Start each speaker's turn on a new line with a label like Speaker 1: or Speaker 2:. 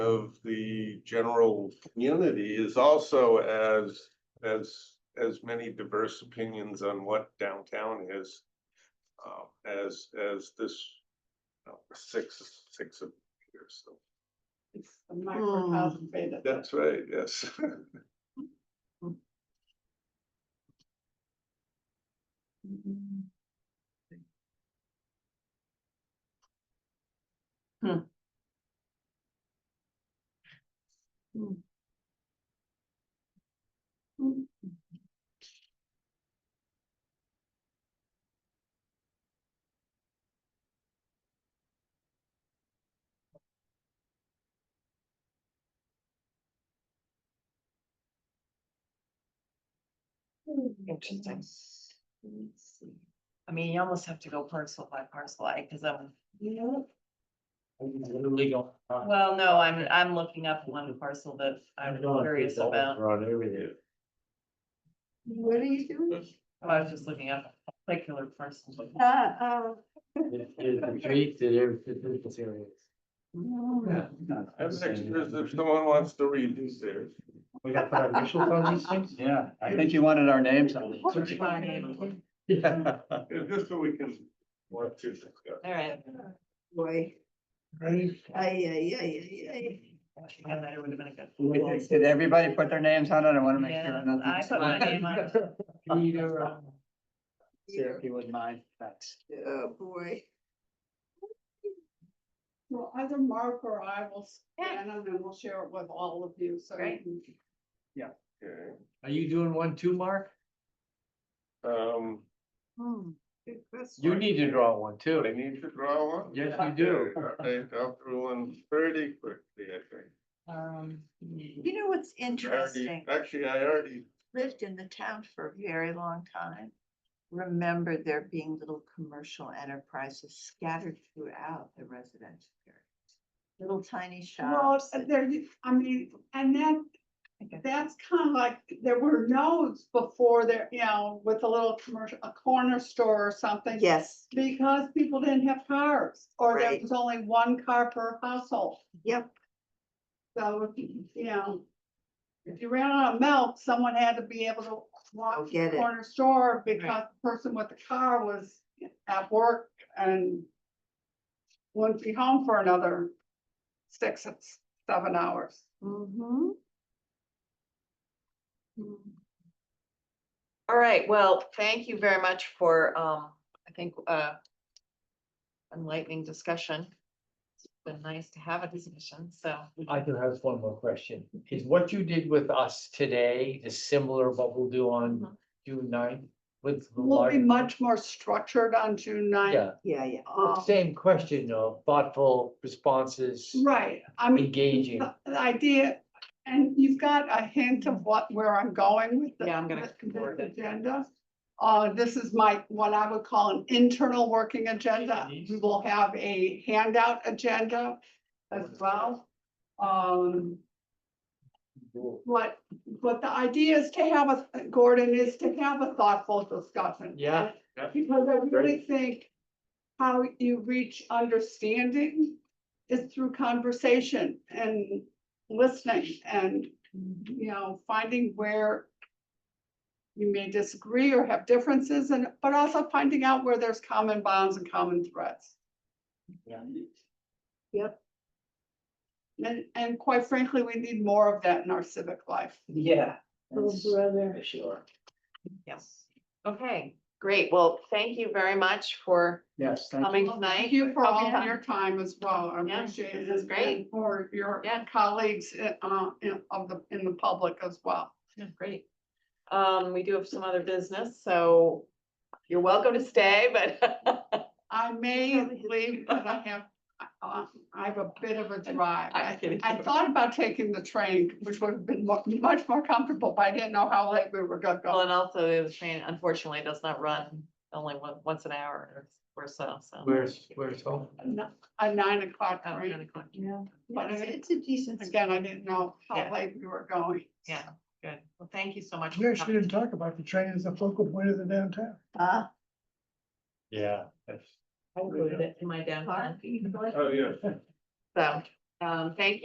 Speaker 1: of the general community is also as, as, as many diverse opinions on what downtown is. Uh, as, as this, uh, six, six of here, so.
Speaker 2: It's a microcosm beta.
Speaker 1: That's right, yes.
Speaker 2: Mhm.
Speaker 3: Interesting. I mean, you almost have to go parcel by parcel, I, cause I'm,
Speaker 4: Literally uh, going. on.
Speaker 3: well, no, I'm, I'm looking up one parcel that I'm
Speaker 4: going to
Speaker 3: curious
Speaker 4: go
Speaker 3: about.
Speaker 4: Around everything.
Speaker 2: What are you doing?
Speaker 3: Oh, I was just looking up a particular parcel. but-
Speaker 2: Uh, oh.
Speaker 4: It- It's a treat to their physical areas.
Speaker 2: Mm.
Speaker 1: I have extras if someone wants to read these there.
Speaker 4: We got to put our initials on these things?
Speaker 5: Yeah, I think you wanted our names on
Speaker 3: What's my
Speaker 5: it.
Speaker 3: name?
Speaker 4: Yeah.
Speaker 1: Just so we can, what to discuss.
Speaker 3: All right.
Speaker 2: Boy,
Speaker 4: Right.
Speaker 2: ay, ay, ay, ay, ay.
Speaker 3: Yeah, that would have been a good.
Speaker 5: Wait, Did everybody put their names on it? I want to make
Speaker 3: Yeah,
Speaker 5: sure
Speaker 3: I put my
Speaker 5: nothing.
Speaker 3: name on. it.
Speaker 4: Peter, uh,
Speaker 5: Sarah, If you wouldn't mind, thanks.
Speaker 2: Oh, boy. Well, either Mark or I will scan them and we'll share it with all of you, so. you
Speaker 3: Great.
Speaker 2: can-
Speaker 1: Okay,
Speaker 4: Are you doing one too, Mark?
Speaker 1: um,
Speaker 6: Hmm.
Speaker 2: Good question.
Speaker 4: You need to draw one
Speaker 1: do I
Speaker 4: too.
Speaker 1: need to draw one?
Speaker 4: Yes, you do.
Speaker 1: All right, I'll throw one pretty quickly, I think.
Speaker 3: Um,
Speaker 6: You know what's
Speaker 1: I already-
Speaker 6: interesting?
Speaker 1: Actually, I already,
Speaker 6: Lived in the town for a very long time. Remember there being little commercial enterprises scattered throughout the residential area. Little tiny
Speaker 2: Well,
Speaker 6: shops. and-
Speaker 2: there, I mean, and that, that's kind of like, there were nodes before there, you know, with a little commercial, a corner store or something.
Speaker 6: Yes,
Speaker 2: Because people didn't have cars, or there
Speaker 6: Right.
Speaker 2: was only one car per household.
Speaker 6: yep,
Speaker 2: So, you know, if you ran out of milk, someone had to be able to
Speaker 6: Go
Speaker 2: walk to
Speaker 6: Oh, get
Speaker 2: the
Speaker 6: it.
Speaker 2: corner store because the person with the car was at work and wouldn't be home for another six, seven hours.
Speaker 6: mm-hmm.
Speaker 3: Mm-hmm. all right, well, thank you very much for, um, I think, uh, enlightening discussion. It's been nice to have a discussion, so.
Speaker 4: I do have one more question. Is what you did with us today is similar to what we'll do on June 9th with? the
Speaker 2: We'll be
Speaker 4: larger-
Speaker 2: much more structured on June ninth.
Speaker 4: Yeah,
Speaker 6: yeah, yeah.
Speaker 2: Um,
Speaker 4: same question though, thoughtful responses,
Speaker 2: Right, I mean,
Speaker 4: engaging.
Speaker 2: the the idea, and you've got a hint of what, where I'm going with the.
Speaker 3: Yeah, I'm gonna
Speaker 2: with
Speaker 3: explore
Speaker 2: this
Speaker 3: that.
Speaker 2: Agenda. Uh, this is my, what I would call an internal working agenda. We will have a handout agenda as well. Um, what, but the idea is to have a, Gordon, is to have a thoughtful discussion.
Speaker 4: Yeah, yeah.
Speaker 2: Because I really think how you reach understanding is through conversation and listening and, you know, finding where you may disagree or have differences and, but also finding out where there's common bonds and common threads.
Speaker 6: Yep.
Speaker 2: And, and quite frankly, we need more of that in our civic life.
Speaker 5: Yeah.
Speaker 2: brother.
Speaker 5: Sure.
Speaker 3: Yes. Okay, great. Well, thank you very much for
Speaker 5: Yes, thank you.
Speaker 3: coming
Speaker 2: Thank
Speaker 3: tonight.
Speaker 2: you for all
Speaker 3: Oh, Yeah.
Speaker 2: your time as well. I
Speaker 3: Yeah,
Speaker 2: appreciate it.
Speaker 3: this is great.
Speaker 2: and For your
Speaker 3: Yeah.
Speaker 2: colleagues uh, uh, in- of the, in the public as well.
Speaker 3: Yeah, Great. Um, we do have some other business, so you're welcome to stay, but
Speaker 2: I may leave, but I have, uh, I have a bit of a drive.
Speaker 3: I'm
Speaker 2: I
Speaker 3: kidding.
Speaker 2: I thought about taking the train, which would have been mu- much more comfortable, but I didn't know how late we were gonna
Speaker 3: Well,
Speaker 2: go.
Speaker 3: and also the train unfortunately does not run only one, once an hour or so, so.
Speaker 4: Where's, where's home?
Speaker 2: A nine o'clock
Speaker 3: Oh,
Speaker 2: train.
Speaker 3: nine o'clock.
Speaker 6: Yeah.
Speaker 2: But
Speaker 6: It's
Speaker 2: it-
Speaker 6: it's a decent.
Speaker 2: Again, I didn't know how
Speaker 3: Yeah.
Speaker 2: late we were going.
Speaker 3: Yeah, good. Well, thank you so much. for
Speaker 7: We actually
Speaker 3: coming.
Speaker 7: didn't talk about the train as a focal point of the downtown.
Speaker 6: Uh,
Speaker 4: Yeah, that's.
Speaker 3: I would go to my downtown.
Speaker 6: Uh-huh. park, you know, like-
Speaker 1: oh, yeah.
Speaker 3: So, um, thank you.